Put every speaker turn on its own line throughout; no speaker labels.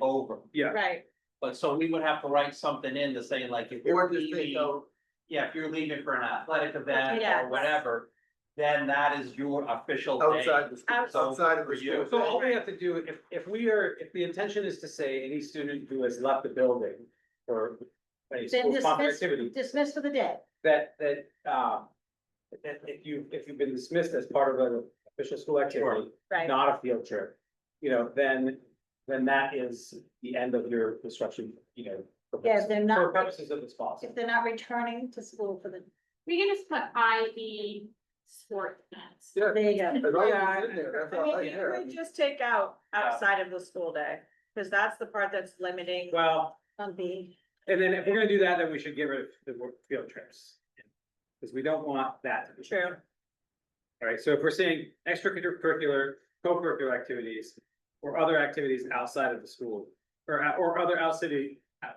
over.
yeah,
right,
But so we would have to write something in to say like if
Or
you're
just take
leaving,
out,
yeah, if you're leaving for an athletic event
Yes.
or whatever. Then that is your official day.
outside the, school-
So, oh,
outside of
for
the
you.
school.
so all we have to do, if, if we are, if the intention is to say any student who has left the building or a school sponsored
dismiss-
activity,
dismissed for the day.
that, that, um, that if you, if you've been dismissed as part of an official school activity,
Right,
not a field trip, you know, then, then that is the end of your instruction, you know. for
Yeah,
purposes-
they're not-
For purposes of this policy.
if they're not returning to school for the,
We can just put I E sport events.
Yeah,
there you go.
as long as it's in there, that's
I
all
mean,
right
you
there. I
could
mean,
just take out outside of the school day, because that's the part that's limiting
Well,
on the,
and then if we're gonna do that, then we should get rid of the word field trips. Because we don't want that to be.
True.
Alright, so if we're saying extracurricular, co-curricular activities, or other activities outside of the school, or, or other outside,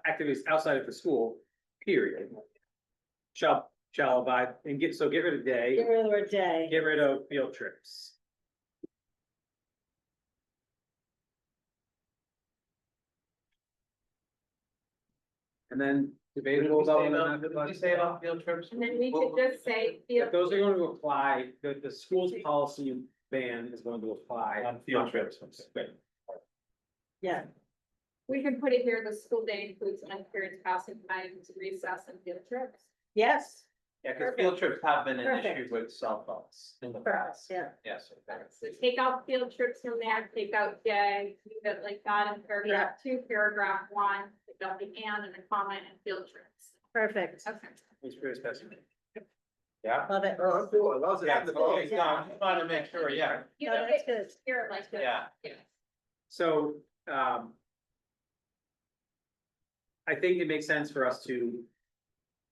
activities outside of the school, period. Shall, shall abide, and get, so get rid of day.
get rid of the word day.
Get rid of field trips. And then debatable
What did
about
we say
whether
about-
or not
what
the
did we
bus-
say about field trips?
And then we
What-
could just say.
if those are going to apply, the, the school's policy ban is going to apply.
On field trips.
Right.
Yeah,
We can put it here, the school day includes unpaid passing times, recess and field trips.
yes,
Yeah, cause field trips have been an issue
Perfect.
with cell phones in the
for us,
past.
yeah.
Yes.
So take out field trips from there, take out day, leave it like that in paragraph two, paragraph one, take out the and and the comment and field trips.
Perfect,
Okay.
It's pretty specific.
Yeah.
love it.
Oh, I'm cool, as long as it's
Yeah,
in the
so,
box.
okay, so I just wanted to make sure, yeah,
You
No,
know,
Oh, that's good.
here like this.
yeah.
Yeah.
So, um. I think it makes sense for us to.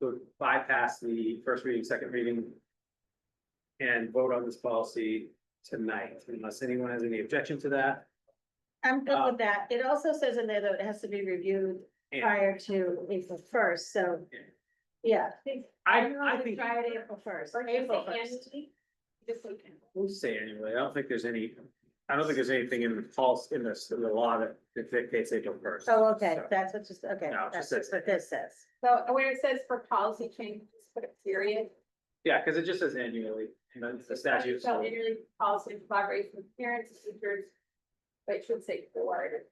sort of bypass the first reading, second reading. And vote on this policy tonight, unless anyone has any objection to that.
I'm good
Uh,
with that. It also says in there that it has to be reviewed
And
prior to April first, so.
Yeah.
Yeah,
I,
Everyone
I
would
think
try
prior
it
to April first, April first.
This weekend.
we'll say anyway, I don't think there's any, I don't think there's anything in the policy, in this, in the law that dictates April first.
Oh, okay, that's what just, okay,
No, it just
that's
says-
what this says.
So where it says for policy changes, put a period.
Yeah, because it just says annually, and then the statute.
So really policy in collaboration with parents, teachers, but it should say board.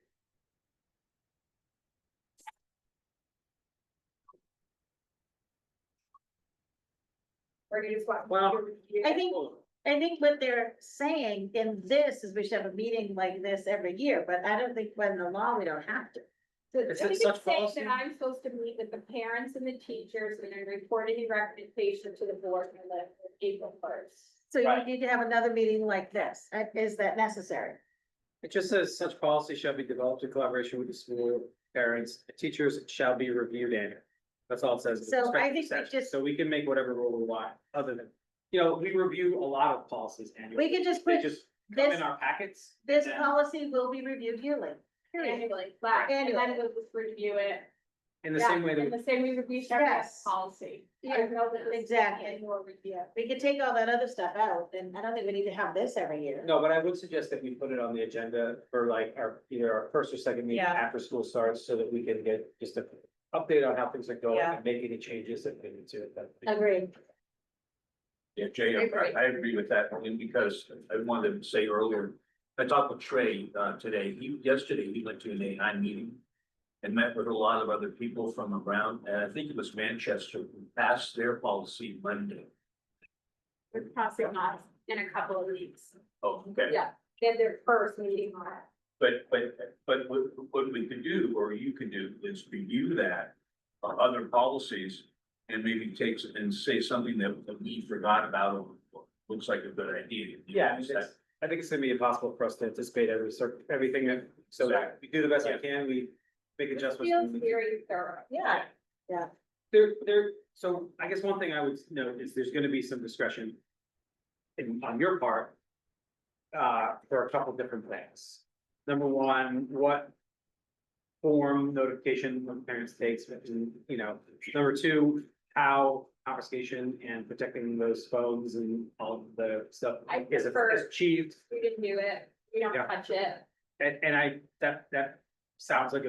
Or you just want.
Well,
I think, I think what they're saying in this is we should have a meeting like this every year, but I don't think when the law, we don't have to.
So
Is
I
it
think
such
it's saying
policy?
that I'm supposed to meet with the parents and the teachers and then report any recommendation to the board on the April first.
So you
Right.
need to have another meeting like this. Uh, Is that necessary?
It just says such policy shall be developed in collaboration with the school, parents, teachers shall be reviewed annually. That's all it says. in the
So I
respective
think we
statutes.
just-
So we can make whatever rule we want, other than, you know, we review a lot of policies annually.
We could just
They
put
just come
This,
in our packets.
this
and-
policy will be reviewed yearly. period.
Annually, but, and then
Annually.
we'll just review it.
In the same way
Yeah, In
that,
the same way that we should have
Yes.
policy.
Yeah,
I know that this is
exactly.
annual review.
We could take all that other stuff out, and I don't think we need to have this every year.
no, but I would suggest that we put it on the agenda for like our, either our first or second meeting
Yeah.
after school starts, so that we can get just a update on how things are going
Yeah.
and make any changes that we need to. at that meeting.
Agreed.
Yeah, Jay, I- I agree with that, only because I wanted to say earlier, I talked with Trey uh today, he, yesterday, he went to an AI meeting. And met with a lot of other people from around, and I think it was Manchester, who passed their policy Monday.
We're crossing off in a couple of weeks.
Oh, okay,
Yeah, they have their first meeting on it.
but but but what what we could do, or you could do, is review that. uh, other policies and maybe take and say something that that we forgot about, or looks like a good idea.
Yeah, I mean, it's- I think it's gonna be impossible for us to anticipate every cir- everything, that- so we do the best we can, we make adjustments.
Feels very thorough.
Yeah,
There, there, so I guess one thing I would note is there's gonna be some discretion in, on your part. Uh, there are a couple different things. Number one, what form notification from parents takes, and, you know, number two, how confiscation and protecting those phones and all of the stuff
I
is
prefer-
is achieved.
We didn't do it, we don't
Yeah.
touch it.
And, and I, that, that sounds like a